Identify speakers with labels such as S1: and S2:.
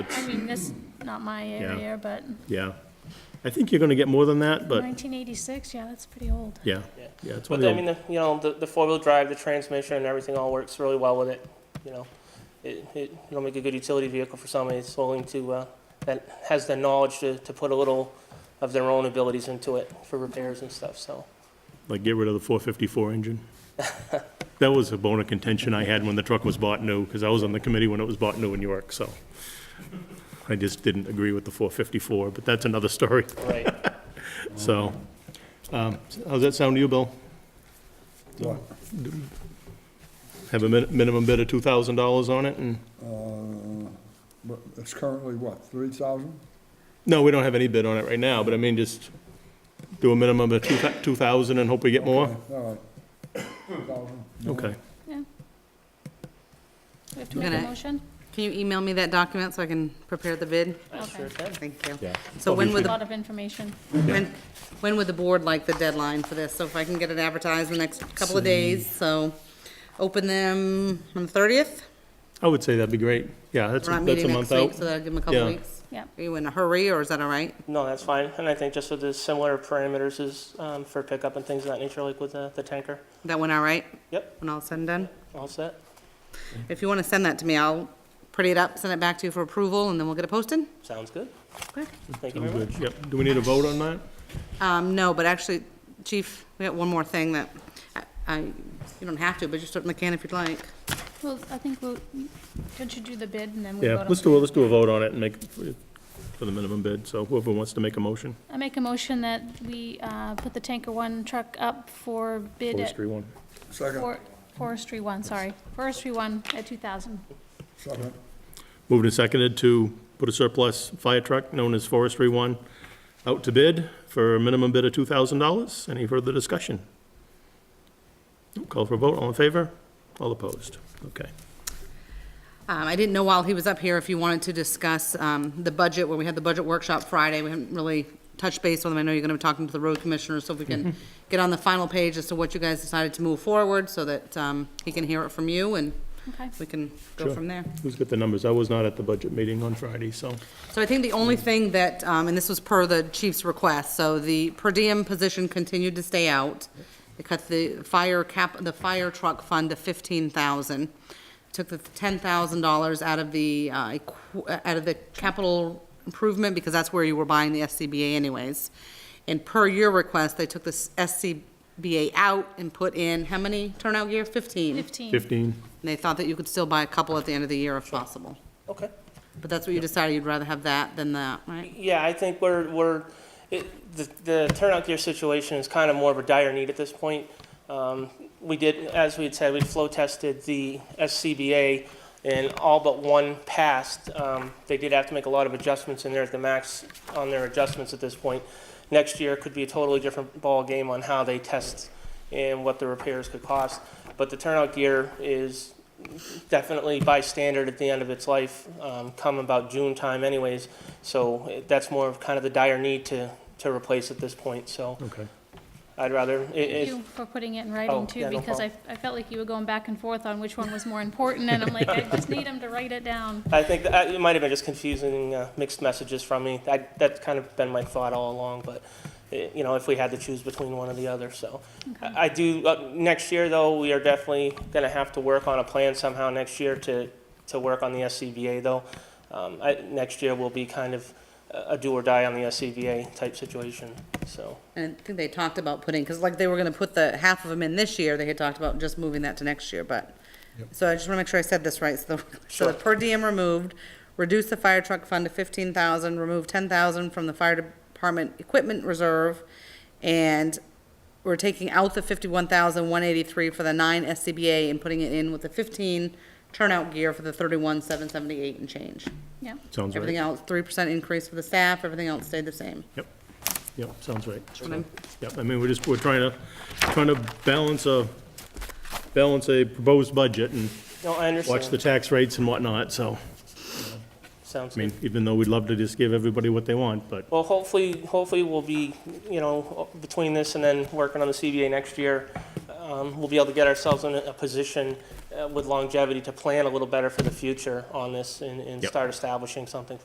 S1: I mean, this, not my area, but
S2: yeah. I think you're gonna get more than that, but,
S1: nineteen eighty-six, yeah, that's pretty old.
S2: yeah, yeah, it's
S3: But
S2: one
S3: I
S2: of
S3: mean,
S2: them,
S3: the, you know, the, the four-wheel drive, the transmission and everything all works really well with it, you know. It, it, it'll make a good utility vehicle for somebody that's willing to, uh, that has the knowledge to, to put a little of their own abilities into it for repairs and stuff, so.
S2: like, get rid of the four fifty-four engine. That was a bone of contention I had when the truck was bought new, because I was on the committee when it was bought new in York, so. I just didn't agree with the four fifty-four, but that's another story,
S3: Right.
S2: so. Um, how's that sound to you, Bill?
S4: What?
S2: Have a min- minimum bid of two thousand dollars on it, and,
S4: Uh, but It's currently what, three thousand?
S2: no, we don't have any bid on it right now, but I mean, just do a minimum of two, two thousand and hope we get more?
S4: All right. Thousand.
S2: Okay.
S1: We have to make a
S5: Minute.
S1: motion?
S5: Can you email me that document so I can prepare the bid?
S3: I sure can.
S5: Thank you.
S2: Yeah.
S5: So when
S1: A
S5: would, the
S1: lot of information.
S5: when, when would the board like the deadline for this? So if I can get it advertised in the next couple of days, so open them on the thirtieth?
S2: I would say that'd be great. Yeah, that's,
S5: We're not
S2: that's a
S5: meeting next
S2: month
S5: week,
S2: out.
S5: so that'll give them a couple
S2: Yeah.
S5: of weeks.
S1: Yeah.
S5: Are you in a hurry, or is that all right?
S3: No, that's fine. And I think just with the similar parameters is, um, for pickup and things of that nature, like with the, the tanker.
S5: That went all right?
S3: Yep.
S5: When all's said and done?
S3: All set?
S5: If you want to send that to me, I'll print it up, send it back to you for approval, and then we'll get it posted?
S3: Sounds good.
S5: Okay.
S3: Thank you
S2: I'm
S3: very much.
S2: good. Yep. Do we need a vote on that?
S5: Um, no, but actually, Chief, we got one more thing that, I- I, you don't have to, but just certainly can if you'd like.
S1: Well, I think we'll, don't you do the bid and then we vote
S2: Yeah,
S1: on
S2: let's do, a- let's do a vote on it and make, it for for the minimum bid. So whoever wants to make a motion,
S1: I make a motion that we, uh, put the tanker one truck up for bid at,
S2: forestry one.
S4: Second,
S1: for, forestry one, sorry, forestry one at two thousand.
S4: second.
S2: Moved and seconded to put a surplus fire truck known as forestry one out to bid for a minimum bid of two thousand dollars. Any further discussion? Call for a vote. All in favor? All opposed? Okay.
S5: Um, I didn't know while he was up here if you wanted to discuss, um, the budget, where we had the budget workshop Friday, we haven't really touched base with him, I know you're gonna be talking to the road commissioner, so if we can get on the final page as to what you guys decided to move forward, so that, um, he can hear it from you, and
S1: Okay.
S5: we can go
S2: Sure.
S5: from there.
S2: Who's got the numbers? I was not at the budget meeting on Friday, so.
S5: So I think the only thing that, um, and this was per the chief's request, so the per diem position continued to stay out. They cut the fire cap, the fire truck fund to fifteen thousand. Took the ten thousand dollars out of the, uh, equ- uh, out of the capital improvement, because that's where you were buying the SCBA anyways. And per your request, they took the SCBA out and put in, how many turnout gear? Fifteen. And
S1: Fifteen.
S2: Fifteen.
S5: they thought that you could still buy a couple at the end of the year if possible.
S3: Okay.
S5: But that's what you decided, you'd rather have that than that, right?
S3: Yeah, I think we're, we're, it, the, the turnout gear situation is kind of more of a dire need at this point. Um, we did, as we had said, we flow tested the SCBA and all but one passed. Um, they did have to make a lot of adjustments in there at the max on their adjustments at this point. Next year could be a totally different ball game on how they test and what the repairs could cost. But the turnout gear is definitely by standard at the end of its life, um, come about June time anyways. So eh, that's more of kind of the dire need to, to replace at this point, so
S2: Okay.
S3: I'd rather, it,
S1: Thank
S3: it,
S1: you for putting it in
S3: Oh,
S1: writing too,
S3: yeah, no
S1: because I, I felt like you were going back and forth on which one was more important, and I'm like, I just need him to write it down.
S3: I think that, it might have been just confusing, uh, mixed messages from me. I, that's kind of been my thought all along, but, eh, you know, if we had to choose between one or the other, so. I I do, uh, next year though, we are definitely gonna have to work on a plan somehow next year to, to work on the SCBA though. Um, I, next year will be kind of a a do or die on the SCBA type situation, so.
S5: And I think they talked about putting, because like they were gonna put the half of them in this year, they had talked about just moving that to next year, but. So I just wanna make sure I said this right, so the, so the
S3: Sure.
S5: per diem removed, reduce the fire truck fund to fifteen thousand, remove ten thousand from the fire department equipment reserve, and we're taking out the fifty-one thousand one eighty-three for the nine SCBA and putting it in with the fifteen turnout gear for the thirty-one seven seventy-eight and change.
S1: Yeah,
S2: Sounds
S5: Everything
S2: right.
S5: else, three percent increase for the staff, everything else stayed the same.
S2: Yep. Yep, sounds right.
S5: I'm-
S2: Yep, I mean, we're just, we're trying to, trying to balance a, balance a proposed budget and
S3: No, I understand.
S2: watch the tax rates and whatnot, so,
S3: Sounds
S2: I mean,
S3: good.
S2: even though we'd love to just give everybody what they want, but,
S3: Well, hopefully, hopefully we'll be, you know, between this and then working on the CBA next year, um, we'll be able to get ourselves in a a position uh, with longevity to plan a little better for the future on this and, and
S2: Yep.
S3: start establishing something